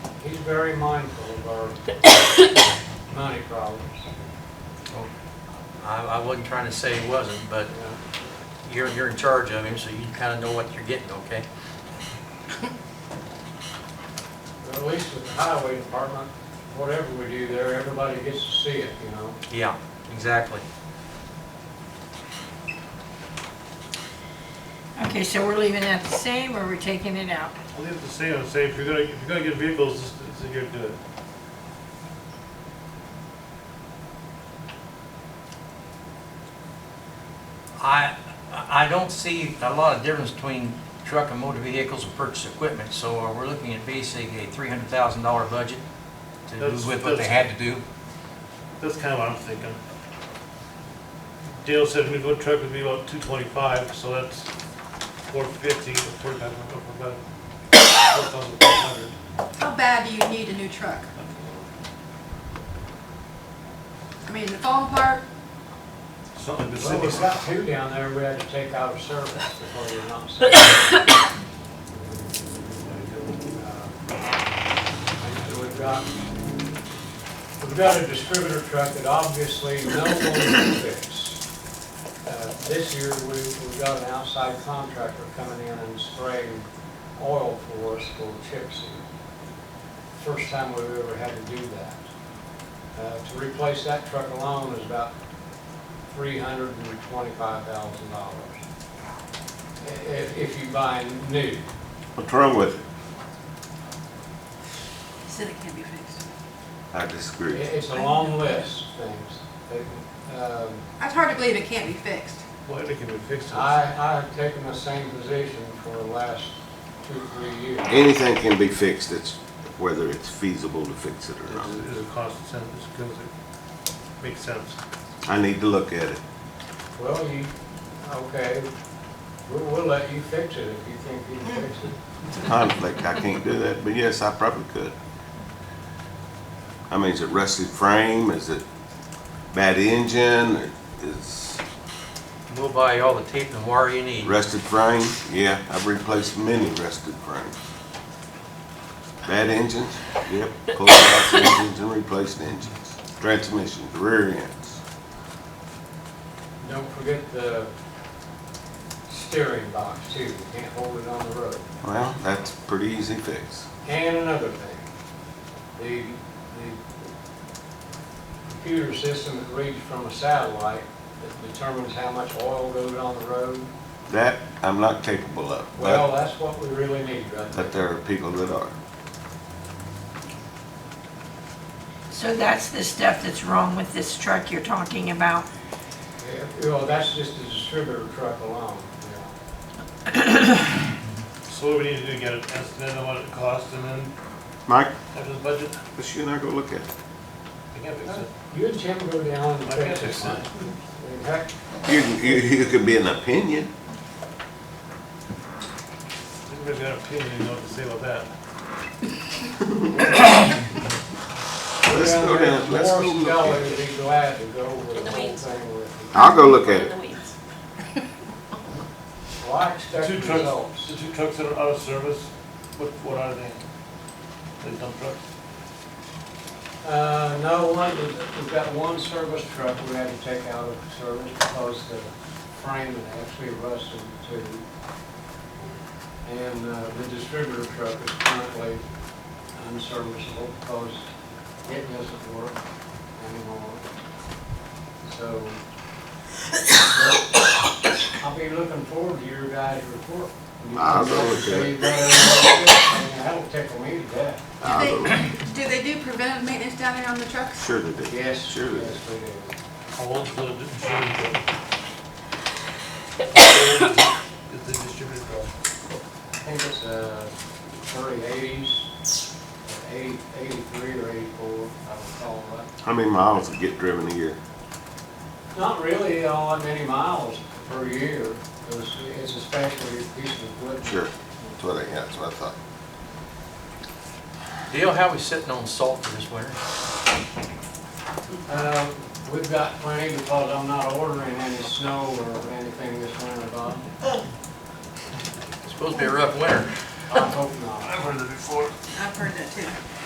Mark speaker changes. Speaker 1: very mindful of our money problems.
Speaker 2: I, I wasn't trying to say he wasn't, but
Speaker 1: you know.
Speaker 2: you're, you're in charge of him, so you kind of know what you're getting, okay?
Speaker 1: But At least with the highway department, whatever we do there, everybody gets to see it, you know?
Speaker 2: Yeah, exactly.
Speaker 3: Okay, so we're leaving that the same or we're taking it out?
Speaker 4: I'll leave it the same, I'll say, if you're gonna, if you're gonna get vehicles, this this is the year to do it.
Speaker 2: I, I don't see a lot of difference between truck and motor vehicles and purchase equipment, so uh, we're looking at basically a three hundred thousand dollar budget to do
Speaker 4: That's-
Speaker 2: with what they had to do.
Speaker 4: That's kind of what I'm thinking. Dale said we'd go truck would be about two twenty-five, so that's four fifty, forty-five, about four thousand five hundred.
Speaker 5: How bad do you need a new truck? I mean, the phone part,
Speaker 4: Something the
Speaker 1: Well, we've
Speaker 4: city's,
Speaker 1: got two down there we had to take out of service before we're not. safe. Uh, and We've got, we've got a distributor truck that obviously no one can fix. Uh, This year, we, we've got an outside contractor coming in and spraying oil for us for chips. First time we've ever had to do that. Uh, To replace that truck alone is about three hundred and twenty-five thousand dollars. If, if you buy new,
Speaker 6: What's wrong with it?
Speaker 3: Said it can't be fixed.
Speaker 6: I
Speaker 1: It-
Speaker 6: disagree.
Speaker 1: it's a long list of things. They- um,
Speaker 5: it's hard to believe it can't be fixed.
Speaker 4: well, it can be fixed.
Speaker 1: I, I have taken the same position for the last two, three years.
Speaker 6: Anything can be fixed, it's whether it's feasible to fix it or
Speaker 4: It's-
Speaker 6: not.
Speaker 4: It's a cost sense, it's a good, it makes sense.
Speaker 6: I need to look at it.
Speaker 1: Well, you, okay, we'll, we'll let you fix it if you think you can fix it.
Speaker 6: It's a conflict, I can't do that, but yes, I probably could. I mean, is it rusted frame, is it bad engine, Or is
Speaker 2: We'll buy all the tape and wire you need.
Speaker 6: rusted frame? Yeah, I've replaced many rusted frames. Bad engines? Yep, pulled out engines and replaced engines. Transmissions, rear ends.
Speaker 1: Don't forget the steering box too, you can't hold it on the road.
Speaker 6: Well, that's a pretty easy fix.
Speaker 1: And another thing, the, the computer system that reads from a satellite that determines how much oil goes on the road,
Speaker 6: That I'm not capable of. but-
Speaker 1: well, that's what we really need right
Speaker 6: But
Speaker 1: there.
Speaker 6: there are people that are.
Speaker 3: So that's the stuff that's wrong with this truck you're talking about?
Speaker 1: Yeah, Well, that's just the distributor truck alone, yeah.
Speaker 4: So what we need to do, get an estimate on what it costs, and then
Speaker 6: Mike,
Speaker 4: after the budget,
Speaker 6: let's you and I go look at it.
Speaker 4: we can fix it.
Speaker 1: You and Tim go down and
Speaker 4: I can't
Speaker 1: fix
Speaker 4: fix
Speaker 1: it.
Speaker 4: it.
Speaker 1: In fact,
Speaker 6: You, can- you, you could be an opinion.
Speaker 4: Everybody's got an opinion, you know what to say about that.
Speaker 6: Let's
Speaker 1: down
Speaker 6: go
Speaker 1: there,
Speaker 6: down, let's go
Speaker 1: Morris
Speaker 6: look
Speaker 1: Kelly
Speaker 6: at
Speaker 1: would
Speaker 6: it.
Speaker 1: be glad to go over the
Speaker 7: the
Speaker 1: whole
Speaker 7: weeds.
Speaker 1: thing with you.
Speaker 6: I'll go look at
Speaker 7: In
Speaker 6: it.
Speaker 7: the weeds.
Speaker 1: Well, I
Speaker 4: The
Speaker 1: expect
Speaker 4: two trucks,
Speaker 1: results.
Speaker 4: the two trucks that are out of service, what, what are they? They dump trucks?
Speaker 1: Uh, no, one, we've got one service truck we had to take out of service because the frame had actually rusted too. And uh, the distributor truck is currently unserviceable because it doesn't work anymore. So I'll be looking forward to your guys' report.
Speaker 6: I'll go look at it.
Speaker 1: See whether- That'll tickle me to death.
Speaker 5: Do
Speaker 6: I'll go look at
Speaker 5: they, do they do preventive maintenance down there on the
Speaker 6: it.
Speaker 5: trucks?
Speaker 6: Sure they do.
Speaker 1: Yes,
Speaker 6: Sure they do.
Speaker 1: yes, we do.
Speaker 4: How old's the distributor truck? How old Is the distributor truck?
Speaker 1: I think it's uh, early eighties, eighty, eighty-three or eighty-four, I would call that.
Speaker 6: How many miles would get driven a year?
Speaker 1: Not really all that many miles per year, 'cause it's a special piece of equipment.
Speaker 6: Sure, that's what I, that's what I thought.
Speaker 2: Dale, how we sitting on salt for this winter?
Speaker 1: Uh, We've got plenty because I'm not ordering any snow or anything this winter, Bob.
Speaker 2: It's supposed to be a rough winter.
Speaker 1: I hope not.
Speaker 4: I've heard that before.
Speaker 5: I've heard that too.